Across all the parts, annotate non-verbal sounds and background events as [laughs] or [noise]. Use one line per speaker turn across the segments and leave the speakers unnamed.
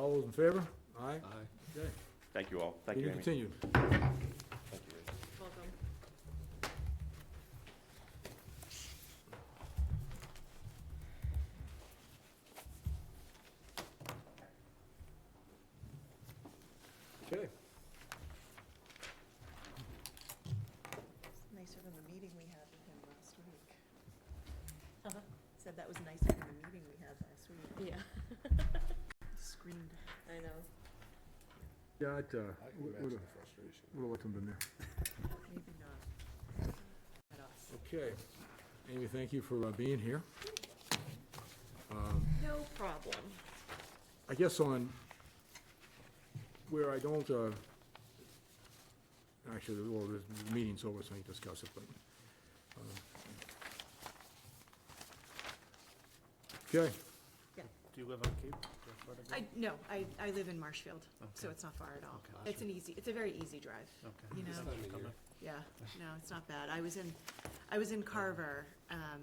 Those in favor? Aye. Okay.
Thank you all. Thank you,
Meeting
Amy.
continued.
Thank you.
Welcome.
Okay.
It's Nicer than the meeting we had with him last week. Uh-huh. Said that was nicer than the meeting we had last week.
Yeah,
[laughs] Screamed.
I know.
Yeah, I'd, uh,
I can
would
imagine
have
the frustration.
let them in there.
Maybe not. At us.
Okay. Amy, thank you for uh, being here. Um,
No problem.
I guess on, where I don't, uh, actually, well, the- the meeting's over, so I can discuss it, but. um, Okay,
Do you live on Cape? Fort Lauderdale?
I, no, I, I live in Marshfield, so
Okay.
it's not far at all.
Okay.
It's an easy, it's a very easy drive,
Okay.
you
This
know?
time of year.
Yeah, no, it's not bad. I was in, I was in Carver, um,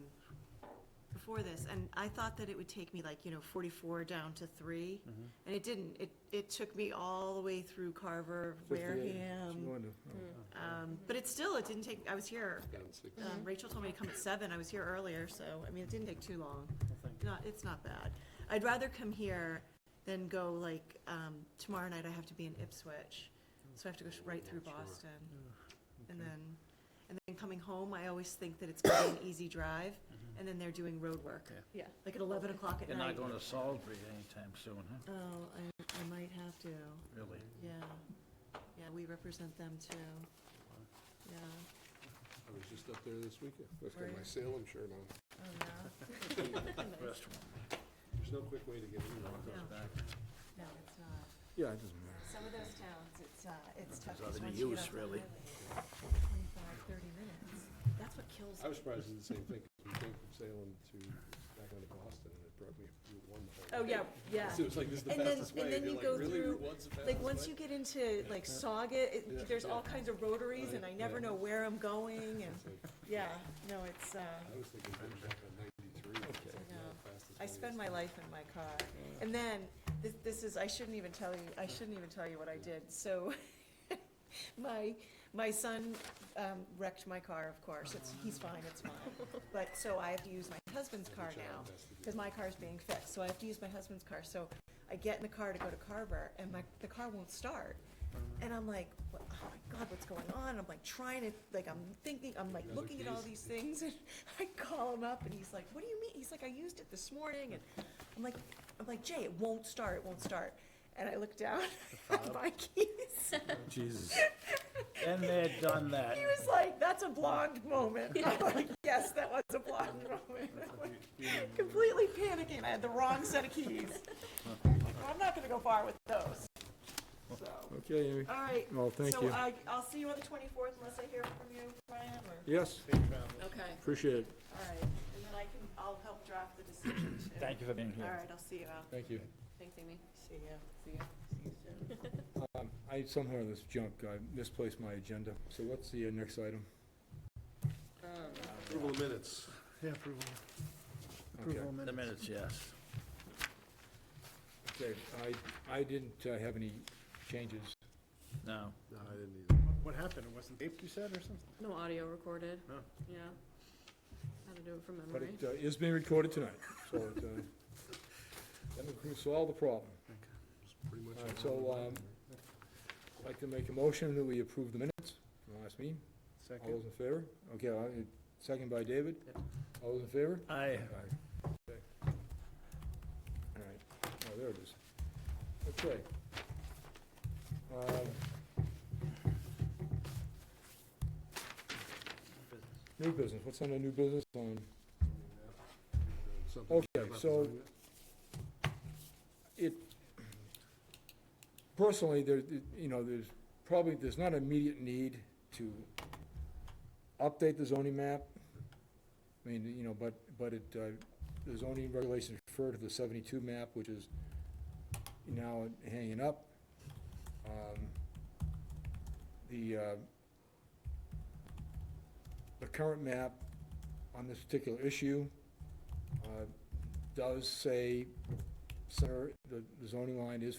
before this, and I thought that it would take me like, you know, forty-four down to three,
Mhm.
and it didn't. It, it took me all the way through Carver, Wareham,
oh,
um, but it still, it didn't take, I was here,
Down six.
um, Rachel told me to come at seven, I was here earlier, so, I mean, it didn't take too long.
Well, thank you.
Not, it's not bad. I'd rather come here than go like, um, tomorrow night I have to be in Ipswich, so I have to go sh- right through
Sure.
Boston. And
Okay.
then, and then coming home, I always think that it's gonna be an easy drive, and then they're doing road work,
Yeah.
Yeah.
like at eleven o'clock at
You're not
night.
going to Salisbury anytime soon, huh?
Oh, I, I might have to,
Really?
yeah. Yeah, we represent them too. Yeah.
I was just up there this weekend. I've got my
Right.
Salem shirt on.
Oh,
[laughs] Restaurant.
There's no quick way to get in. there.
No,
back.
no, it's not.
Yeah, it doesn't matter.
Some of those towns, it's, uh, it's tough.
There's
'cause
other
once you get
use,
off the
really.
highway, Twenty-five, thirty minutes. That's what kills.
I was surprised at the same thing. 'cause We came from Salem to back onto Boston and it brought me Route One. the whole
Oh,
way.
yeah, yeah.
So it was like, this is the
And then-
fastest
and
way.
then
you're
you
like,
go
"Really?
through-
Route One's the
Like,
fastest
once
way?"
you get into like Saugat,
Yeah.
it- there's all kinds of rotaries and I never know where I'm going and,
It's like,
yeah, no, it's, uh,
I was thinking Bridge up on ninety-three. It's like, oh,
No.
yeah, fastest
I
way
spend
is-
my life in my car. And then, this, this is, I shouldn't even tell you, I shouldn't even tell you what I did. So, [laughs] my, my son um, wrecked my car, of course. It's, he's
Uh-huh.
fine, it's mine. But, so I have to use my husband's car
Child
now.
has to do
because my car's being fixed, so I have to use my husband's car. So I get in the car to go to Carver, and my, the car won't start.
Uh-huh.
And I'm like, "What- oh my God, what's going on? I'm like trying to, like, I'm thinking, I'm like
Another
looking at all
case.
these things, and [laughs] I call him up, and he's like, what do you mean? He's like, I used it this morning, and I'm like, I'm like, Jay, it won't start, it won't start. And I look down [laughs] at my
[laughs]
keys.
Jesus.
And they're done that.
He was like, that's a blonde
[laughs]
moment. I'm like, yes, that was a blonde moment. I'm [laughs] like, completely panicking. I had the wrong set of keys.
[laughs]
I'm not gonna go far with those. So,
Okay, Amy.
all right.
Well, thank you.
So uh, I, I'll see you on the twenty-fourth unless I hear from you, Brian, or,
Yes,
Okay.
appreciate it.
all right. And then I can, I'll help draft the decision too.
Thank you for being here.
All right, I'll see you out.
Thank you.
Thanks, Amy.
See you.
See ya.
[laughs]
Um, I, somehow this junk, I misplaced my agenda. So what's the uh, next item?
Approval of minutes.
Yeah, approval.
Okay.
Approval
The
minutes.
minutes, yes.
Okay, I, I didn't uh, have any changes.
No.
No, I didn't either.
What happened? It wasn't taped, you said, or something?
No audio recorded.
No.
Yeah. Had to do it from
But
memory.
it uh, is being recorded tonight, so it, uh, that will solve the problem.
It's pretty much.
All right,
around
so,
the line
um,
there.
I'd like to make a motion that we approve the minutes from the last meeting. All
um, Second?
those in favor? Okay, I'll- second by David.
Yep.
All those in favor?
I,
Okay. All right, oh, there it is. Okay. Um, New business, what's on the new business on?
Something
Okay,
about
so-
the-
it, personally, there, you know, there's probably, there's not immediate need to update the zoning map. I mean, you know, but, but it, uh, the zoning regulations refer to the seventy-two map, which is now hanging up. Um, The, uh, the current map on this particular issue, uh, does say center, the the zoning line is